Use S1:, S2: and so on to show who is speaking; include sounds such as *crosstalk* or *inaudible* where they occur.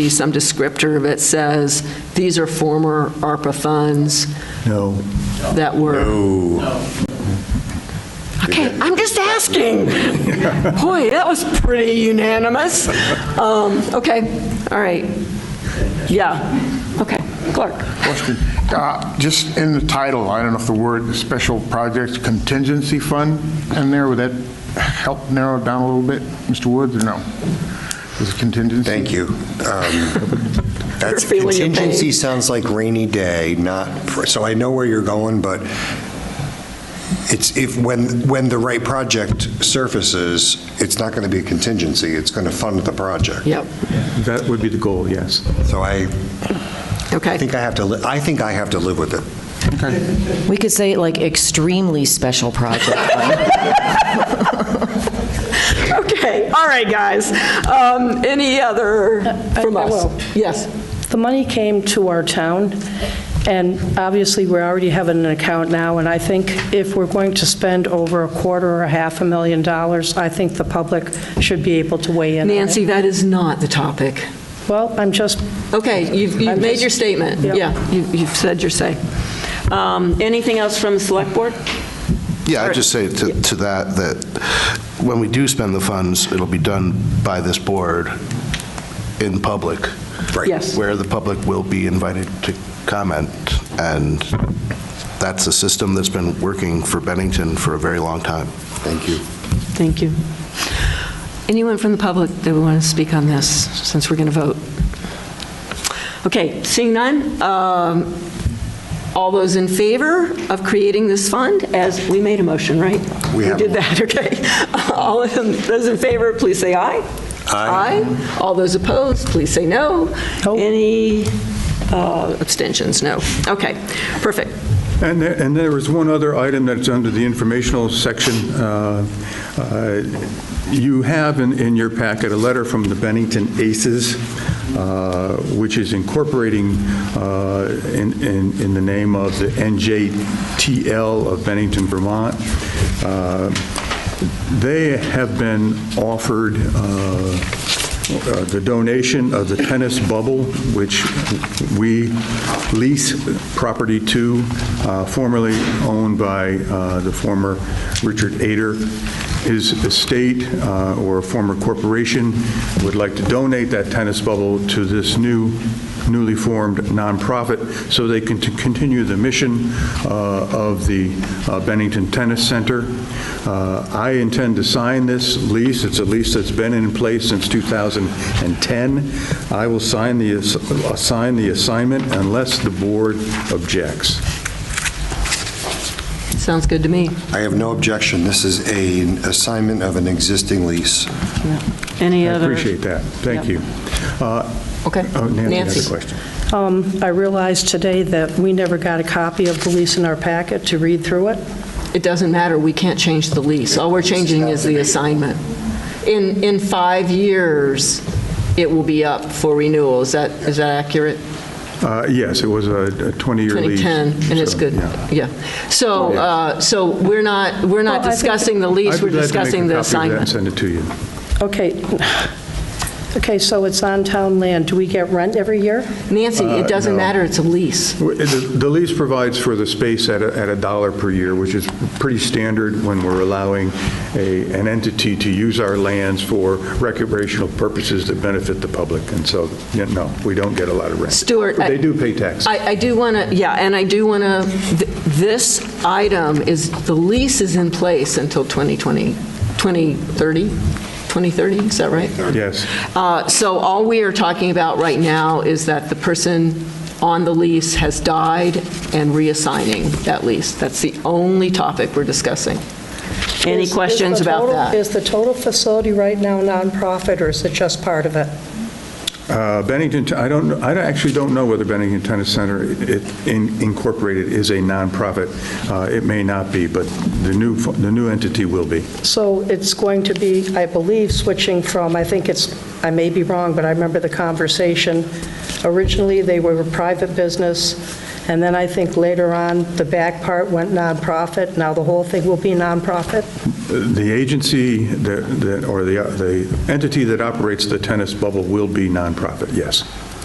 S1: be some descriptor that says, these are former ARPA funds
S2: No.
S1: that were, okay, I'm just
S3: *laughs*
S1: asking. Boy, that was pretty unanimous. Um, Okay, all right. Yeah, okay, Clark.
S4: Question. Uh, Just in the title, I don't know if the word "special projects contingency fund" in there, would that help narrow it down a little bit, Mr. Woods, or no? Is it contingency?
S3: Thank you. Um, That's,
S1: You're feeling your pain.
S3: contingency sounds like rainy day, not, for- so I know where you're going, but it's, if, when, when the right project surfaces, it's not going to be a contingency, it's going to fund the project.
S1: Yep,
S2: That would be the goal, yes.
S3: So I
S1: okay.
S3: think I have to, li- I think I have to live with it.
S5: We could say like extremely special project.
S1: *laughs* Okay, all right, guys. Um, Any other
S6: I-
S1: from
S6: I
S1: us?
S6: will.
S1: Yes.
S6: The money came to our town, and obviously, we already have an account now, and I think if we're going to spend over a quarter or a half a million dollars, I think the public should be able to weigh in. on it.
S1: Nancy, that is not the topic.
S6: Well, I'm just,
S1: Okay, you've you've
S6: I'm
S1: made
S6: just-
S1: your statement.
S6: Yep.
S1: Yeah, you- you've said your say. Um, Anything else from the Select Board?
S7: Yeah, I'd just say to to that, that when we do spend the funds, it'll be done by this board in public.
S3: Right.
S1: Yes.
S7: Where the public will be invited to comment, and that's a system that's been working for Bennington for a very long time. Thank you.
S1: Thank you. Anyone from the public that would want to speak on this, since we're going to vote? Okay, seeing none, um, all those in favor of creating this fund, as we made a motion, right?
S3: We have.
S1: did that, *laughs* okay. All of them- those in favor, please say aye.
S3: Aye.
S1: All those opposed, please say no.
S6: No.
S1: Any uh, abstentions? No. Okay, perfect.
S2: And there, and there was one other item that's under the informational section. Uh, uh, You have in, in your packet a letter from the Bennington Aces, uh, which is incorporating uh, in, in in the name of the NJTL of Bennington, Vermont. Uh, They have been offered uh, uh, the donation of the tennis bubble, which we lease property to, uh, formerly owned by uh, the former Richard Ader. His estate, uh, or former corporation, would like to donate that tennis bubble to this new, newly formed nonprofit, so they can t- continue the mission uh, of the uh, Bennington Tennis Center. Uh, I intend to sign this lease. It's a lease that's been in place since 2010. I will sign the, ass- assign the assignment unless the board objects.
S1: Sounds good to me.
S3: I have no objection, this is a an assignment of an existing lease.
S1: Any
S2: I
S1: other?
S2: appreciate that. Thank you. Uh,
S1: Okay.
S2: oh, Nancy has
S1: Nancy.
S2: a question.
S6: um, I realized today that we never got a copy of the lease in our packet to read through it.
S1: It doesn't matter, we can't change the lease. All we're changing is the assignment. In, in five years, it will be up for renewal. Is that, is that accurate?
S2: Uh, Yes, it was a a 20-year lease.
S1: 2010, and it's
S2: so,
S1: good,
S2: yeah.
S1: yeah. So,
S2: Yeah.
S1: uh, so we're not, we're not
S6: Well, I think-
S1: discussing the lease,
S2: I'd
S1: we're
S2: be glad to make
S1: discussing
S2: a
S1: the
S2: copy of that and
S1: assignment.
S2: Send it to you.
S6: Okay, okay, so it's on town land. Do we get rent every year?
S1: Nancy,
S2: Uh,
S1: it doesn't matter, it's a lease.
S2: Well, The the lease provides for the space at a, at a dollar per year, which is pretty standard when we're allowing a, an entity to use our lands for recreational purposes that benefit the public. And so, yeah, no, we don't get a lot of rent.
S1: Stuart,
S2: But
S1: I-
S2: They do pay taxes.
S1: I, I do want to, yeah, and I do want to, this item is, the lease is in place until 2020, 2030? 2030, is that right?
S2: Yes.
S1: Uh, So all we are talking about right now is that the person on the lease has died and reassigning that lease. That's the only topic we're discussing. Any
S6: Is- is
S1: questions
S6: the
S1: about
S6: total-
S1: that?
S6: Is the total facility right now nonprofit, or is it just part of it?
S2: Uh, Bennington, I don't, I don't- actually don't know whether Bennington Tennis Center it- in- Incorporated is a nonprofit. Uh, It may not be, but the new, fu- the new entity will be.
S6: So it's going to be, I believe, switching from, I think it's, I may be wrong, but I remember the conversation. Originally, they were a private business, And then I think later on, the back part went nonprofit. Now the whole thing will be nonprofit.
S2: The agency that, that- or the, the entity that operates the tennis bubble will be nonprofit, yes.